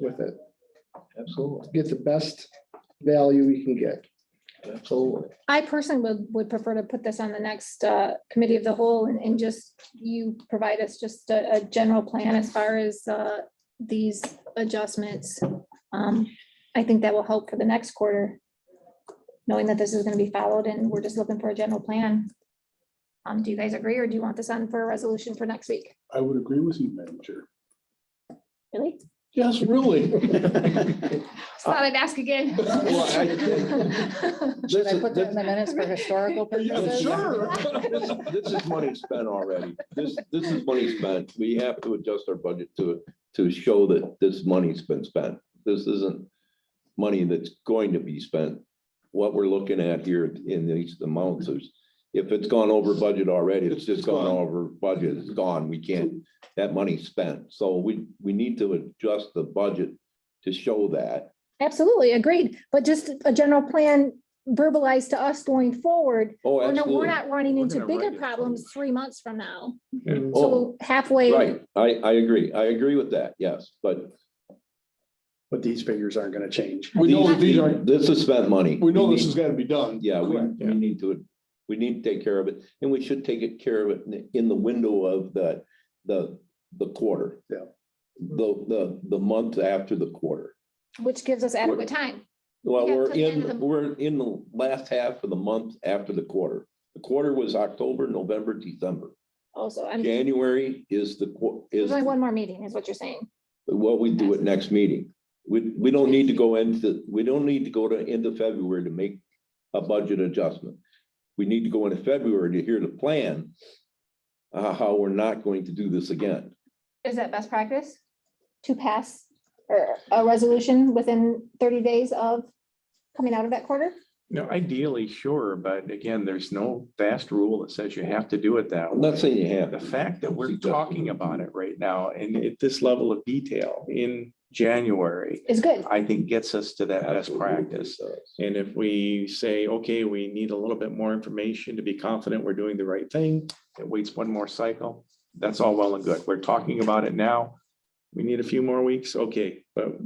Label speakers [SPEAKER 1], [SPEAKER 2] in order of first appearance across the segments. [SPEAKER 1] with it.
[SPEAKER 2] Absolutely,
[SPEAKER 1] Get the best value we can get.
[SPEAKER 2] absolutely.
[SPEAKER 3] I personally would, would prefer to put this on the next uh, committee of the whole and, and just you provide us just a, a general plan as far as uh, these adjustments. Um, I think that will help for the next quarter, knowing that this is going to be followed and we're just looking for a general plan. Um, Do you guys agree or do you want this on for a resolution for next week?
[SPEAKER 4] I would agree with you, Madam Chair.
[SPEAKER 3] Really?
[SPEAKER 4] Yes, really.
[SPEAKER 3] Just thought I'd ask again.
[SPEAKER 2] I-
[SPEAKER 5] Should I put that in the minutes for historical purposes?
[SPEAKER 4] Sure.
[SPEAKER 2] This this is money spent already. This, this is money spent. We have to adjust our budget to, to show that this money's been spent. This isn't money that's going to be spent. What we're looking at here in these amounts is, if it's gone over budget already, it's just gone over budget, it's gone. We can't, that money's spent. So we, we need to adjust the budget to show that.
[SPEAKER 3] Absolutely, agreed. But just a general plan verbalized to us going forward
[SPEAKER 2] Oh,
[SPEAKER 3] Oh, no, we're
[SPEAKER 2] absolutely.
[SPEAKER 3] not running
[SPEAKER 4] We're
[SPEAKER 3] into
[SPEAKER 4] gonna write
[SPEAKER 3] bigger
[SPEAKER 4] it.
[SPEAKER 3] problems three months from now.
[SPEAKER 2] Oh,
[SPEAKER 3] So halfway.
[SPEAKER 2] Right, I, I agree. I agree with that, yes, but.
[SPEAKER 5] But these figures aren't gonna change.
[SPEAKER 4] We know that
[SPEAKER 2] these-
[SPEAKER 4] these are,
[SPEAKER 2] This is spent money.
[SPEAKER 4] we know this has got to be done.
[SPEAKER 2] Yeah, we,
[SPEAKER 4] Correct,
[SPEAKER 2] we need to, we need to take care of it, and we should take it care of it in- in the window of the, the, the quarter.
[SPEAKER 5] Yeah.
[SPEAKER 2] The, the, the month after the quarter.
[SPEAKER 3] Which gives us adequate time.
[SPEAKER 2] Well,
[SPEAKER 3] Yeah,
[SPEAKER 2] we're
[SPEAKER 3] till the end of
[SPEAKER 2] in,
[SPEAKER 3] the-
[SPEAKER 2] we're in the last half of the month after the quarter. The quarter was October, November, December.
[SPEAKER 3] Also, I'm, there's
[SPEAKER 2] January is the, qu- is.
[SPEAKER 3] only one more meeting is what you're saying.
[SPEAKER 2] Well, we do it next meeting. We, we don't need to go into, we don't need to go to end of February to make a budget adjustment. We need to go into February to hear the plan. Uh, how we're not going to do this again.
[SPEAKER 3] Is that best practice? To pass or a resolution within thirty days of coming out of that quarter?
[SPEAKER 6] No, ideally, sure, but again, there's no fast rule that says you have to do it that
[SPEAKER 2] I'm
[SPEAKER 6] way.
[SPEAKER 2] not saying you
[SPEAKER 6] The
[SPEAKER 2] have.
[SPEAKER 6] fact that we're
[SPEAKER 2] Suggestion.
[SPEAKER 6] talking about it right now and at this level of detail in January,
[SPEAKER 3] Is good.
[SPEAKER 6] I think gets us to that best
[SPEAKER 2] Absolutely.
[SPEAKER 6] practice. And if we say, okay, we need a little bit more information to be confident we're doing the right thing, it waits one more cycle. That's all well and good. We're talking about it now. We need a few more weeks, okay, but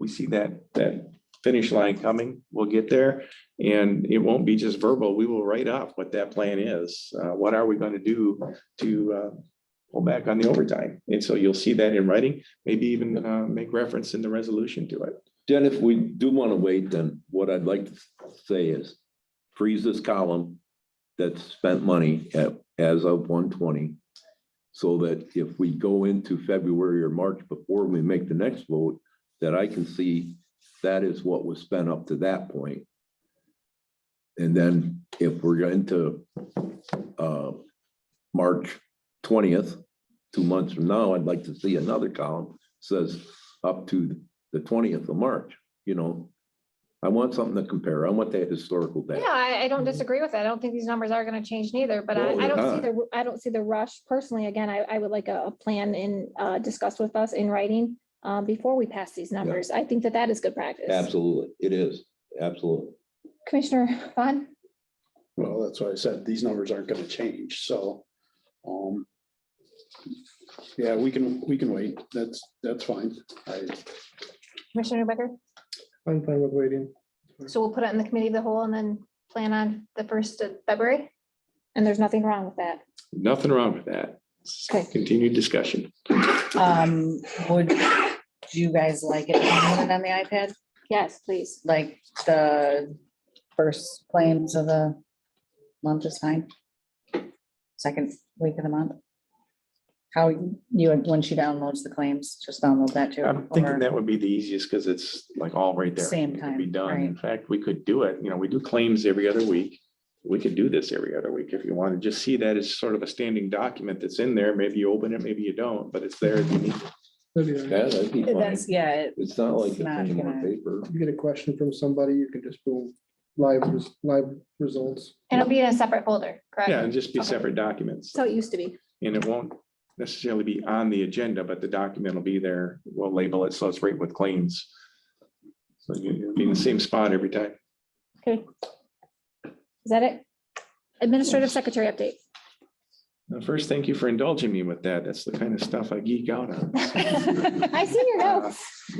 [SPEAKER 6] we see that, that finish line coming. We'll get there. And it won't be just verbal. We will write up what that plan is. Uh, what are we gonna do to, uh, pull back on the overtime? And so you'll see that in writing, maybe even, uh, make reference in the resolution to it.
[SPEAKER 2] Jen, if we do want to wait, then what I'd like to say is freeze this column that spent money at, as of one twenty. So that if we go into February or March before we make the next vote, that I can see that is what was spent up to that point. And then if we're going to, uh, March twentieth, two months from now, I'd like to see another column says up to the twentieth of March, you know? I want something to compare. I want that historical
[SPEAKER 3] Yeah,
[SPEAKER 2] data.
[SPEAKER 3] I, I don't disagree with that. I don't think these numbers are gonna change neither, but I,
[SPEAKER 2] No,
[SPEAKER 3] I
[SPEAKER 2] they're
[SPEAKER 3] don't see
[SPEAKER 2] not.
[SPEAKER 3] the, I don't see the rush personally. Again, I, I would like a, a plan in, uh, discussed with us in writing, uh, before we pass these numbers. I think that that is good practice.
[SPEAKER 2] Absolutely, it is, absolutely.
[SPEAKER 3] Commissioner Vaughn?
[SPEAKER 5] Well, that's what I said. These numbers aren't gonna change, so. um, Yeah, we can, we can wait. That's, that's fine. I,
[SPEAKER 3] Commissioner Becker?
[SPEAKER 1] I'm fine with waiting.
[SPEAKER 3] So we'll put it in the committee of the whole and then plan on the first of February? And there's nothing wrong with that.
[SPEAKER 6] Nothing wrong with that.
[SPEAKER 3] Okay.
[SPEAKER 6] Continued discussion.
[SPEAKER 5] Um,
[SPEAKER 7] Would you guys like it downloaded on the iPad,
[SPEAKER 3] Yes, please.
[SPEAKER 7] like the first claims of the month is fine? Second week of the month? How you, when she downloads the claims, just download that too.
[SPEAKER 6] I'm thinking
[SPEAKER 7] or-
[SPEAKER 6] that would be the easiest because it's like all right there.
[SPEAKER 7] Same
[SPEAKER 6] It could
[SPEAKER 7] time,
[SPEAKER 6] Be done.
[SPEAKER 7] right.
[SPEAKER 6] In fact, we could do it. You know, we do claims every other week. We could do this every other week if you want to just see that as sort of a standing document that's in there. Maybe you open it, maybe you don't, but it's there. if you need it.
[SPEAKER 1] If
[SPEAKER 2] Yeah, that'd be fine.
[SPEAKER 7] That's, yeah, it-
[SPEAKER 2] It's not like it's
[SPEAKER 7] It's not
[SPEAKER 2] any more
[SPEAKER 7] gonna-
[SPEAKER 2] paper.
[SPEAKER 1] you get a question from somebody, you can just boom, live, res- live results.
[SPEAKER 3] And it'll be in a separate folder,
[SPEAKER 6] Yeah,
[SPEAKER 3] correct?
[SPEAKER 6] and just be
[SPEAKER 3] Okay.
[SPEAKER 6] separate documents.
[SPEAKER 3] So it used to be.
[SPEAKER 6] And it won't necessarily be on the agenda, but the document will be there. We'll label it. So it's right with claims. So you- you'll be in the same spot every time.
[SPEAKER 3] Okay. Is that it? Administrative Secretary update.
[SPEAKER 6] Now, First, thank you for indulging me with that. That's the kind of stuff I geek out on.
[SPEAKER 3] I see your notes.